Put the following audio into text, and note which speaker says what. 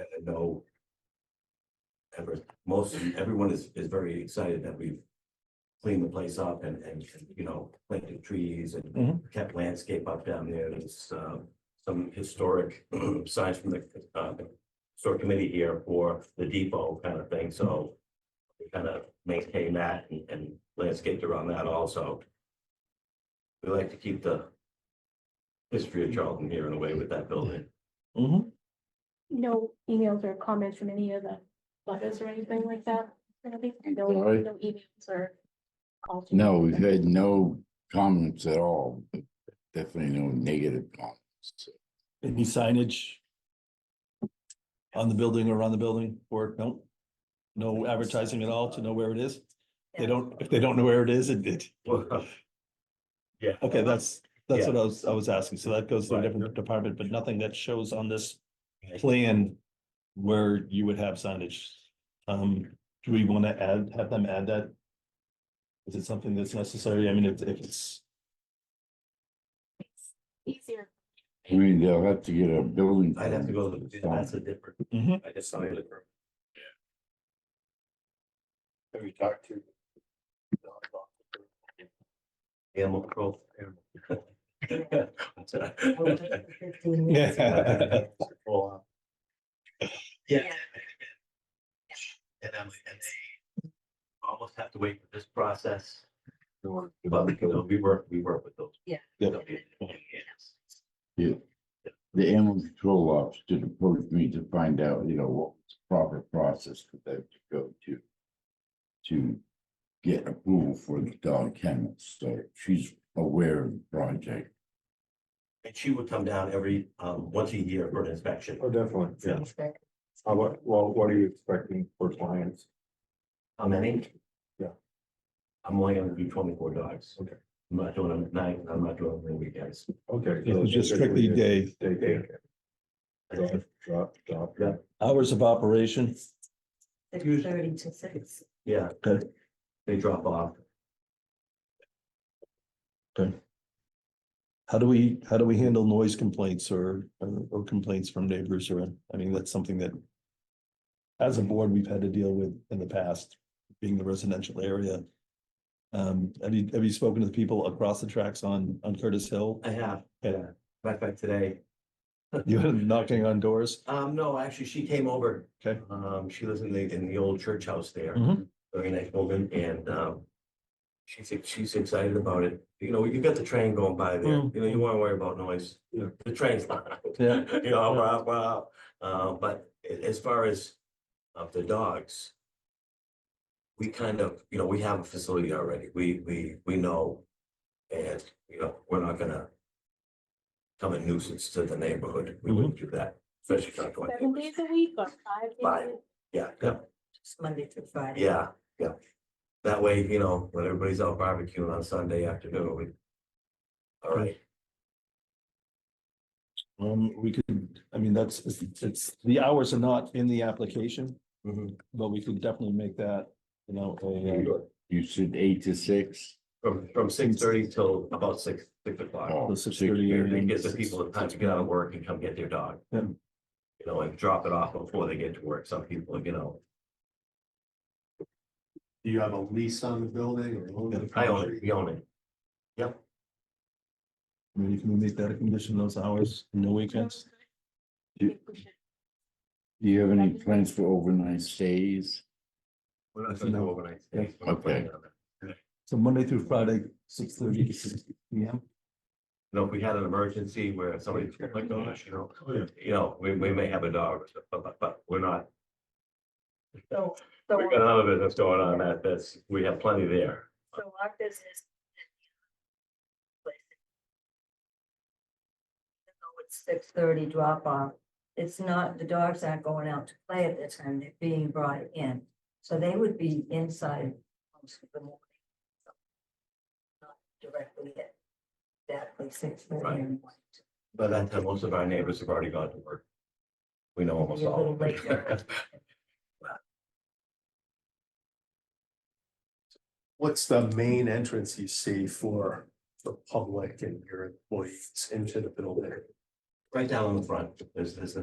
Speaker 1: I know. Ever, most, everyone is, is very excited that we've cleaned the place up and, and, you know, planted trees and
Speaker 2: Mhm.
Speaker 1: kept landscape up down there. There's, uh, some historic signs from the, uh, store committee here for the depot kind of thing, so we kind of maintain that and, and landscaped around that also. We like to keep the history of Charlton here in a way with that building.
Speaker 2: Mhm.
Speaker 3: No emails or comments from any of the butters or anything like that? Really? No,
Speaker 4: Sorry?
Speaker 3: no emails or calls?
Speaker 4: No, we've had no comments at all, but definitely no negative comments.
Speaker 2: Any signage? On the building or around the building or no? No advertising at all to know where it is? They don't, if they don't know where it is, it did.
Speaker 1: Yeah.
Speaker 2: Okay, that's, that's what I was, I was asking. So that goes to a
Speaker 1: Right.
Speaker 2: different department, but nothing that shows on this plan where you would have signage. Um, do we want to add, have them add that? Is it something that's necessary? I mean, if, if it's,
Speaker 3: Easier.
Speaker 4: I mean, they'll have to get a building.
Speaker 1: I'd have to go, to the- that's a
Speaker 4: permit.
Speaker 1: different,
Speaker 2: Mhm.
Speaker 1: I just signed it.
Speaker 5: Have you talked to?
Speaker 1: Animal control.
Speaker 2: yeah,
Speaker 5: Well,
Speaker 1: Yeah. And I'm, and they almost have to wait for this process, but you know, we work, we work with those.
Speaker 6: Yeah.
Speaker 1: They'll
Speaker 2: Yep.
Speaker 1: be-
Speaker 4: The animal control officer approached me to find out, you know, what was the proper process for them to go to. To get approval for the dog kennels, so she's aware of the project.
Speaker 1: And she would come down every, um, once a year for an inspection.
Speaker 5: oh, definitely.
Speaker 1: Yeah.
Speaker 5: How about, well, what are you expecting for clients?
Speaker 1: How many?
Speaker 5: Yeah.
Speaker 1: I'm only gonna do twenty-four dogs.
Speaker 5: Okay.
Speaker 1: I'm not doing them at night, I'm not doing them on weekends.
Speaker 5: Okay.
Speaker 2: it was just strictly day,
Speaker 5: Day, day,
Speaker 1: I
Speaker 5: drop, drop, drop.
Speaker 1: Yeah.
Speaker 2: hours of operation.
Speaker 6: Six
Speaker 1: Usually-
Speaker 6: thirty to six.
Speaker 1: Yeah,
Speaker 2: Okay.
Speaker 1: they drop off.
Speaker 2: How do we, how do we handle noise complaints or, or complaints from neighbors or, I mean, that's something that. As a board, we've had to deal with in the past, being the residential area. Um, have you, have you spoken to the people across the tracks on, on Curtis Hill?
Speaker 1: I have,
Speaker 2: Yeah,
Speaker 1: matter of fact, today,
Speaker 2: you were knocking on doors?
Speaker 1: um, no, actually, she came over.
Speaker 2: Okay.
Speaker 1: Um, she lives in the, in the old church house there.
Speaker 2: Mhm.
Speaker 1: Very nice woman, and, um, she's, ex- she's excited about it. You know, you got the train going by there, you
Speaker 2: Mm.
Speaker 1: know, you wanna worry about noise.
Speaker 2: Yeah.
Speaker 1: The train's not.
Speaker 2: Yeah.
Speaker 1: You know, wow, wow. Uh, but a- as far as of the dogs, we kind of, you know, we have a facility already. We, we, we know. And, you know, we're not gonna come a nuisance to the neighborhood. We wouldn't do that, especially not going.
Speaker 3: Seven days a week or five? days a
Speaker 1: Five.
Speaker 3: week?
Speaker 1: Yeah, yeah,
Speaker 6: Just Monday through Friday.
Speaker 1: yeah, yeah. That way, you know, when everybody's out barbecuing on Sunday afternoon, we. All right,
Speaker 2: Um, we could, I mean, that's, it's, it's, the hours are not in the application,
Speaker 1: Mhm.
Speaker 2: but we could definitely make that, you know, a, uh,
Speaker 4: You said eight to six?
Speaker 1: from, from six thirty till about six, six o'clock.
Speaker 4: Oh,
Speaker 2: The 6:30
Speaker 4: 6:30.
Speaker 2: a.m.
Speaker 1: It gives the people time to get out of work and come get their dog.
Speaker 2: Yeah.
Speaker 1: You know, and drop it off before they get to work. Some people, you know,
Speaker 5: Do you have a lease on the building or?
Speaker 1: I own it, we own it.
Speaker 2: I mean, can we make that a condition, those hours, no weekends?
Speaker 3: I think we should.
Speaker 4: Do you have any plans for overnight stays?
Speaker 1: We're not gonna do overnight stays. We're not planning on that.
Speaker 2: So Monday through Friday, six thirty to six P M.
Speaker 1: You know, if we had an emergency where somebody clicked on us, you know, you know, we, we may have a dog, or so- but, but, but we're not.
Speaker 6: So, so,
Speaker 1: We got another business going on that, that's, we have plenty there.
Speaker 6: so our business. So It's six thirty drop off. It's not, the dogs aren't going out to play at that time. They're being brought in. So they would be inside most of the morning. So, Not directly at exactly six
Speaker 1: Right.
Speaker 6: thirty. in the morning.
Speaker 1: By that time, most of our neighbors have already gone to work. We know almost
Speaker 6: You're a
Speaker 1: all of
Speaker 6: little
Speaker 1: them.
Speaker 5: What's the main entrance you see for the public and your employees into the building?
Speaker 1: Right down in the front, there's, there's